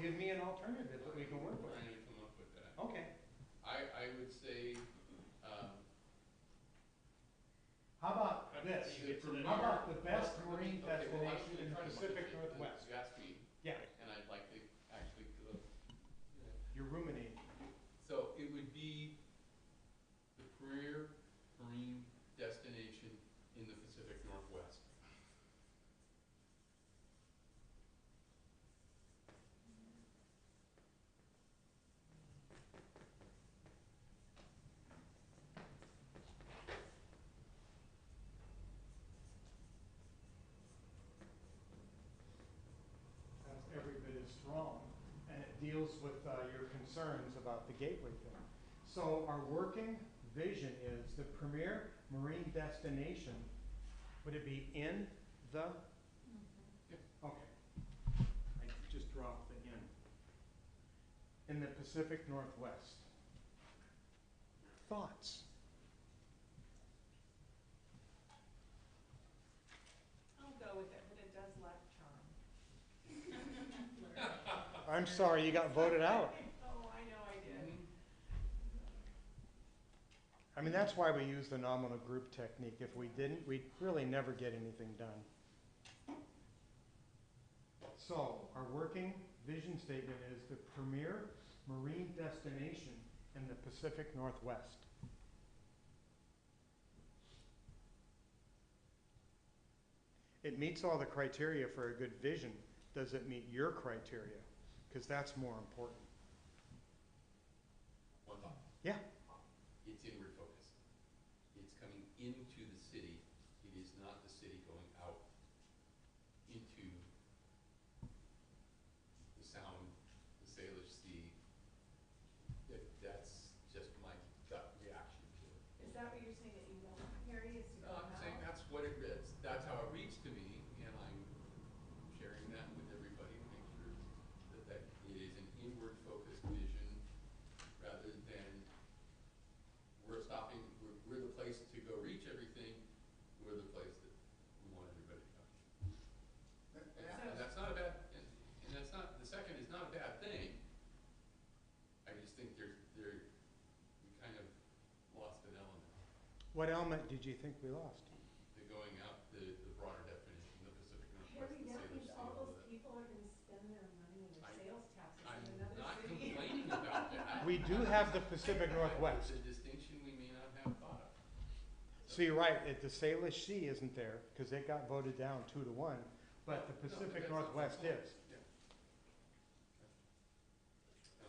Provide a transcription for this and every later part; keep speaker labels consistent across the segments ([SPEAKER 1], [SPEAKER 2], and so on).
[SPEAKER 1] give me an alternative that we can work with.
[SPEAKER 2] Trying to come up with that.
[SPEAKER 1] Okay,
[SPEAKER 2] I, I would say, um,
[SPEAKER 1] how about this?
[SPEAKER 2] You get to the-
[SPEAKER 1] How about the best marine
[SPEAKER 2] okay, well, I'm
[SPEAKER 1] destination
[SPEAKER 2] gonna
[SPEAKER 1] in the
[SPEAKER 2] try to
[SPEAKER 1] Pacific
[SPEAKER 2] look at the- the
[SPEAKER 1] Northwest?
[SPEAKER 2] Gatsby,
[SPEAKER 1] Yeah,
[SPEAKER 2] and I'd like to actually, go-
[SPEAKER 1] you're ruminating.
[SPEAKER 2] so it would be the premier marine destination in the Pacific Northwest.
[SPEAKER 1] That's every bit as strong, and it deals with uh, your concerns about the gateway thing. So our working vision is the premier marine destination, would it be in the?
[SPEAKER 3] Mm-hmm.
[SPEAKER 1] Okay. I just dropped the in. In the Pacific Northwest. Thoughts?
[SPEAKER 3] I'll go with it, but it does lack charm.
[SPEAKER 1] I'm sorry, you got voted out.
[SPEAKER 3] Oh, I know I did.
[SPEAKER 1] I mean, that's why we use the nominal group technique. If we didn't, we'd really never get anything done. So, our working vision statement is the premier marine destination in the Pacific Northwest. It meets all the criteria for a good vision. Does it meet your criteria? Because that's more important.
[SPEAKER 2] One thought.
[SPEAKER 1] Yeah.
[SPEAKER 2] It's inward focus. It's coming into the city. It is not the city going out into the sound, the Salish Sea. That, that's just my gut reaction to it.
[SPEAKER 3] Is that what you're saying that you want, Harry, is to go
[SPEAKER 2] Oh, I'm saying
[SPEAKER 3] out?
[SPEAKER 2] that's what it is. That's how it reads to me, and I'm sharing that with everybody to make sure that, that it is an inward focused vision rather than we're stopping, we're, we're the place to go reach everything, we're the place that we want everybody to come. And that- and that's not a bad, and, and that's not, the second is not a bad thing. I just think there's, there, we kind of lost an element
[SPEAKER 1] What element did you think we lost?
[SPEAKER 2] the going out, the, the broader definition, the Pacific Northwest,
[SPEAKER 3] Harry,
[SPEAKER 2] the
[SPEAKER 3] that
[SPEAKER 2] Salish
[SPEAKER 3] means
[SPEAKER 2] Sea,
[SPEAKER 3] all
[SPEAKER 2] all
[SPEAKER 3] those
[SPEAKER 2] that.
[SPEAKER 3] people are gonna spend their money and their
[SPEAKER 2] I-
[SPEAKER 3] sales taxes
[SPEAKER 2] I'm
[SPEAKER 3] in another
[SPEAKER 2] not
[SPEAKER 3] city.
[SPEAKER 2] complaining about that.
[SPEAKER 1] We do have the Pacific Northwest.
[SPEAKER 2] It's a distinction we may not have thought of.
[SPEAKER 1] So you're right, it, the Salish Sea isn't there, because it got voted down two to one,
[SPEAKER 2] No,
[SPEAKER 1] but the
[SPEAKER 2] but
[SPEAKER 1] Pacific
[SPEAKER 2] that's not the
[SPEAKER 1] Northwest
[SPEAKER 2] point.
[SPEAKER 1] is.
[SPEAKER 2] Yeah. No,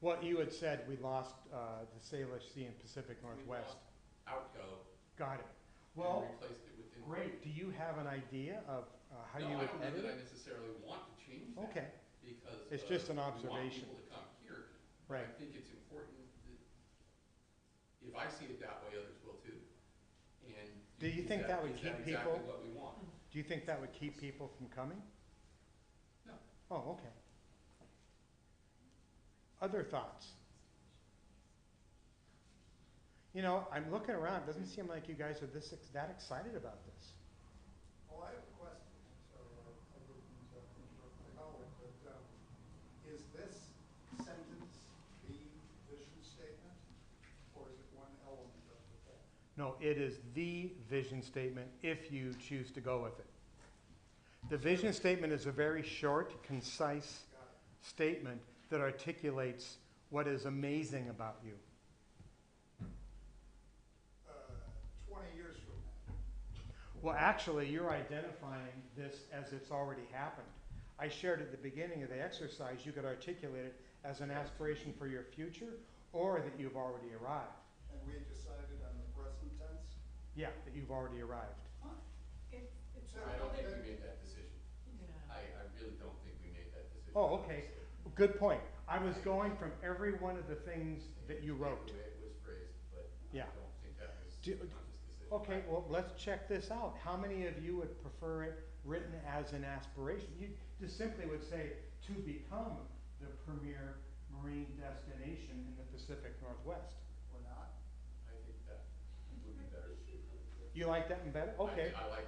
[SPEAKER 1] What you had said, we lost, uh, the Salish Sea and Pacific
[SPEAKER 2] we
[SPEAKER 1] Northwest.
[SPEAKER 2] lost Outgo,
[SPEAKER 1] Got it.
[SPEAKER 2] and
[SPEAKER 1] Well,
[SPEAKER 2] replaced it with in.
[SPEAKER 1] great, do you have an idea of, uh, how you
[SPEAKER 2] No, I
[SPEAKER 1] would
[SPEAKER 2] don't know
[SPEAKER 1] edit
[SPEAKER 2] that I
[SPEAKER 1] it?
[SPEAKER 2] necessarily want to change that,
[SPEAKER 1] Okay,
[SPEAKER 2] because.
[SPEAKER 1] It's
[SPEAKER 2] uh,
[SPEAKER 1] just an
[SPEAKER 2] we want
[SPEAKER 1] observation.
[SPEAKER 2] people to come here.
[SPEAKER 1] right,
[SPEAKER 2] I think it's important that, if I see it that way, others will too. And.
[SPEAKER 1] Do you
[SPEAKER 2] is
[SPEAKER 1] think that would
[SPEAKER 2] is
[SPEAKER 1] keep
[SPEAKER 2] exactly
[SPEAKER 1] people-
[SPEAKER 2] what we want?
[SPEAKER 1] do you think that would keep people from coming?
[SPEAKER 2] No.
[SPEAKER 1] Oh, okay. Other thoughts? You know, I'm looking around, it doesn't seem like you guys are this, ex- that excited about this.
[SPEAKER 4] Well, I have a question, so uh, I wouldn't uh, interrupt the Howard, but um, is this sentence the vision statement, or is it one element of the thing?
[SPEAKER 1] No, it is the vision statement if you choose to go with it. The vision statement is a very short, concise
[SPEAKER 4] Got it.
[SPEAKER 1] statement that articulates what is amazing about you.
[SPEAKER 4] Uh, Twenty years from now,
[SPEAKER 1] Well, actually, you're identifying this as it's already happened. I shared at the beginning of the exercise, you could articulate it as an aspiration for your future or that you've already arrived.
[SPEAKER 4] and we decided on the present tense?
[SPEAKER 1] Yeah, that you've already arrived.
[SPEAKER 3] It's, it's.
[SPEAKER 4] So-
[SPEAKER 2] I don't think we made that decision.
[SPEAKER 3] Yeah.
[SPEAKER 2] I, I really don't think we made that decision.
[SPEAKER 1] Oh, okay. Good point. I was going from every one of the things that you wrote.
[SPEAKER 2] The way it was phrased, but I
[SPEAKER 1] Yeah.
[SPEAKER 2] don't think that was
[SPEAKER 1] Do-
[SPEAKER 2] a conscious decision.
[SPEAKER 1] Okay, well, let's check this out. How many of you would prefer it written as an aspiration? You just simply would say, to become the premier marine destination in the Pacific Northwest.
[SPEAKER 4] Or not?
[SPEAKER 2] I think that would be better.
[SPEAKER 1] You like that one better?
[SPEAKER 2] I-
[SPEAKER 1] Okay.
[SPEAKER 2] I like